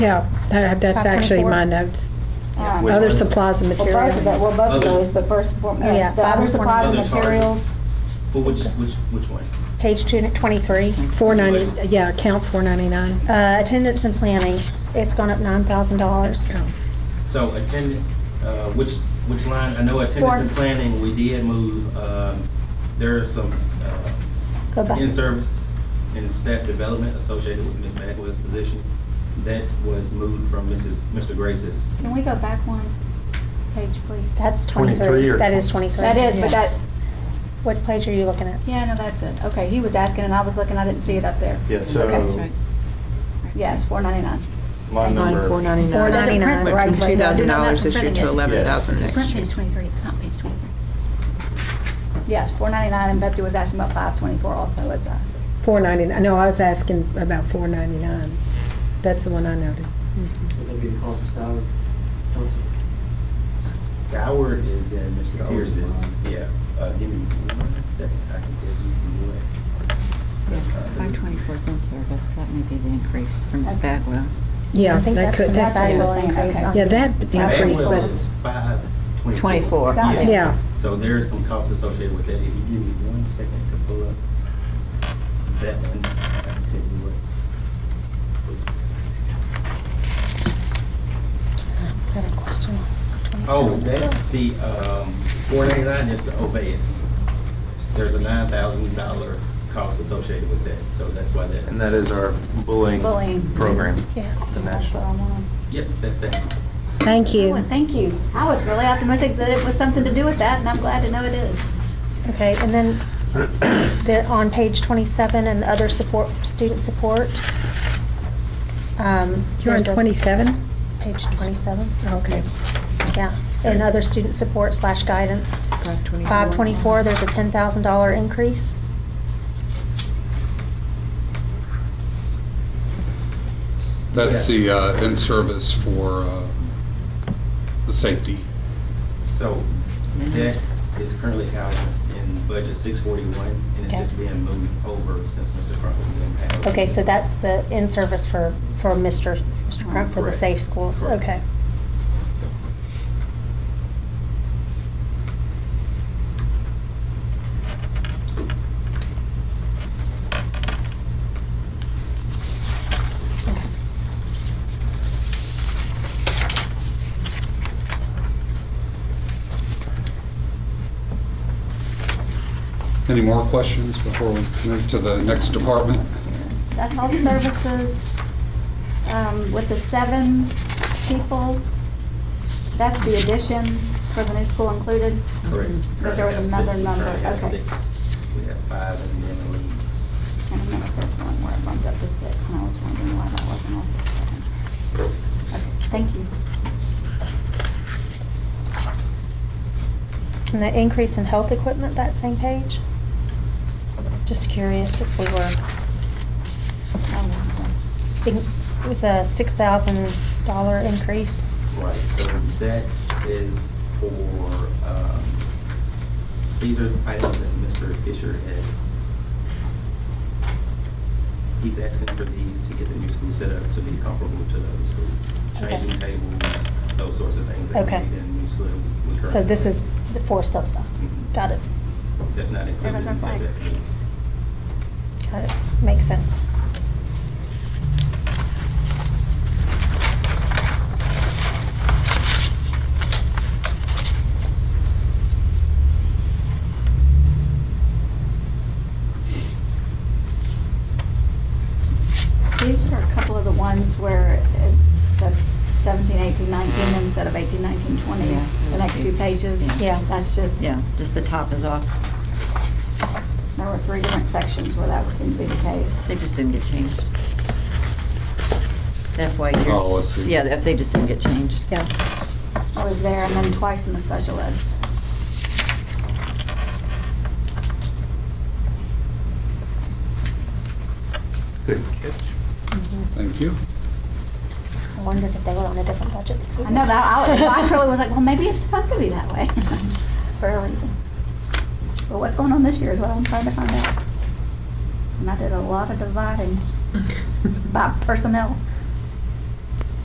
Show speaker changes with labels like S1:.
S1: Yeah, that- that's
S2: Five
S1: actually my
S2: twenty-four.
S1: notes.
S2: All
S3: Which
S2: right.
S1: Other
S3: one?
S1: supplies and
S2: Um, Well, both of
S1: materials.
S2: that, well, both of
S3: Other-
S2: those, but first, and foremost,
S4: Oh, yeah,
S2: the other
S4: five
S2: supplies and
S3: twenty-four.
S2: materials,
S3: Well, which, which, which one?
S4: Page two twenty-three,
S1: 490, yeah, account 499.
S4: uh, attendance and planning, it's gone up nine thousand dollars.
S3: So attendant, uh, which, which line, I know attendance and
S2: Four.
S3: planning, we did move, um, there are some, uh,
S4: Go back.
S3: in-service and staff development associated with Ms. Bagwell's position. That was moved from Mrs., Mr. Grace's.
S2: can we go back one page, please?
S4: That's
S5: 23
S4: twenty-three,
S5: or-
S4: that is twenty-three.
S2: That is, but that,
S4: What page are you looking at?
S2: yeah, no, that's it, okay, he was asking and I was looking, I didn't see it up there.
S5: Yeah,
S2: Okay.
S5: so
S2: Yeah, it's four ninety-nine.
S5: line
S6: four
S5: number,
S6: ninety-nine.
S4: Four ninety-nine,
S6: Went from two thousand dollars this year to eleven thousand
S2: It's
S6: next
S2: print
S6: year.
S2: page twenty-three, it's not page twenty-three. Yes, four ninety-nine, and Betsy was asking about five twenty-four also, it's, uh,
S1: 499, no, I was asking about 499. That's the one I noted.
S7: Would that be the cost of salary?
S3: Howard is in Mr.
S7: Howard's
S3: Pierce's.
S7: line.
S3: Yeah. Uh, give me one second, I can give you what.
S6: Five twenty-four is in service, that may be the increase from Ms. Bagwell.
S1: Yeah,
S4: I think
S1: that
S4: that's the
S1: could,
S4: best
S1: that,
S2: I
S4: annual
S2: yeah.
S4: increase.
S2: Okay.
S4: on-
S1: yeah, that increased,
S3: Bagwell
S1: but,
S3: is five twenty-four.
S6: Twenty-four.
S2: Got it.
S1: yeah.
S3: So there is some costs associated with that. If you give me one second to pull up that one, I can tell you what.
S4: Got a question on 27
S3: Oh,
S4: as well.
S3: that's the, um, four ninety-nine is the obeyance. There's a nine thousand dollar cost associated with that, so that's why that.
S5: and that is our bullying
S2: Bullying.
S5: program.
S4: Yes.
S2: that's
S5: The
S2: what
S5: national.
S2: I'm on.
S3: Yep, that's that.
S1: Thank you.
S2: Oh, thank you. I was really optimistic that it was something to do with that, and I'm glad to know it is.
S4: Okay, and then there, on page 27 and the other support, student support. um,
S1: You're on
S4: there's a-
S1: 27?
S4: Page 27,
S1: Okay.
S4: yeah. And other student support slash guidance.
S6: 524.
S4: 524, there's a $10,000 increase.
S8: That's
S3: Yeah.
S8: the uh, in-service for uh, the safety.
S3: So that is currently housed in budget six forty-one, and it's
S4: Okay.
S3: just being moved over since Mr. Crumple's been passed.
S4: Okay, so that's the in-service for, for Mr. Mr. Crump for the
S3: Correct.
S4: safe schools,
S3: Correct.
S4: okay.
S8: Any more questions before we move to the next department?
S2: That's all the services, um, with the seven people, that's the addition for the new school included.
S3: Correct.
S2: But there was
S3: Currently have
S2: another
S3: six.
S2: number.
S3: Currently have
S2: Okay.
S3: six. We have five and then we
S2: And I remember there's one where it bumped up to six, and I was wondering why that wasn't also seven. Okay, thank you.
S4: And the increase in health equipment, that same page? Just curious if we were,
S2: Oh,
S4: it was a $6,000 increase.
S3: Right, so that is for, um, these are items that Mr. Fisher has, he's asking for these to get the new school set up to be comparable to the other schools.
S4: Okay.
S3: Changing tables, those sorts of things that we
S4: Okay.
S3: need in the new school. we currently
S4: So this
S3: have.
S4: is the four still stuff.
S3: Mhm.
S4: Got it,
S3: That's not included in
S2: Remember
S3: that.
S2: Mike?
S4: got it. Makes sense.
S2: These are a couple of the ones where it's the 17, 18, 19 instead of 18, 19, 20,
S6: Yeah.
S2: the next two pages.
S6: Yeah.
S4: Yeah.
S2: That's just, there
S6: Yeah, just the top is off.
S2: were three different sections where that would seem to be the case.
S6: They just didn't get changed. That's why you're.
S8: Oh, I see.
S6: Yeah, if they just didn't get changed.
S2: I was there and then twice in the special ed.
S5: Good catch.
S8: Thank you.
S4: I wondered if they were on a different budget.
S2: I know that, I I truly was like, well, maybe it's supposed to be that way for a reason. But what's going on this year is what I'm trying to find out. And I did a lot of dividing by personnel.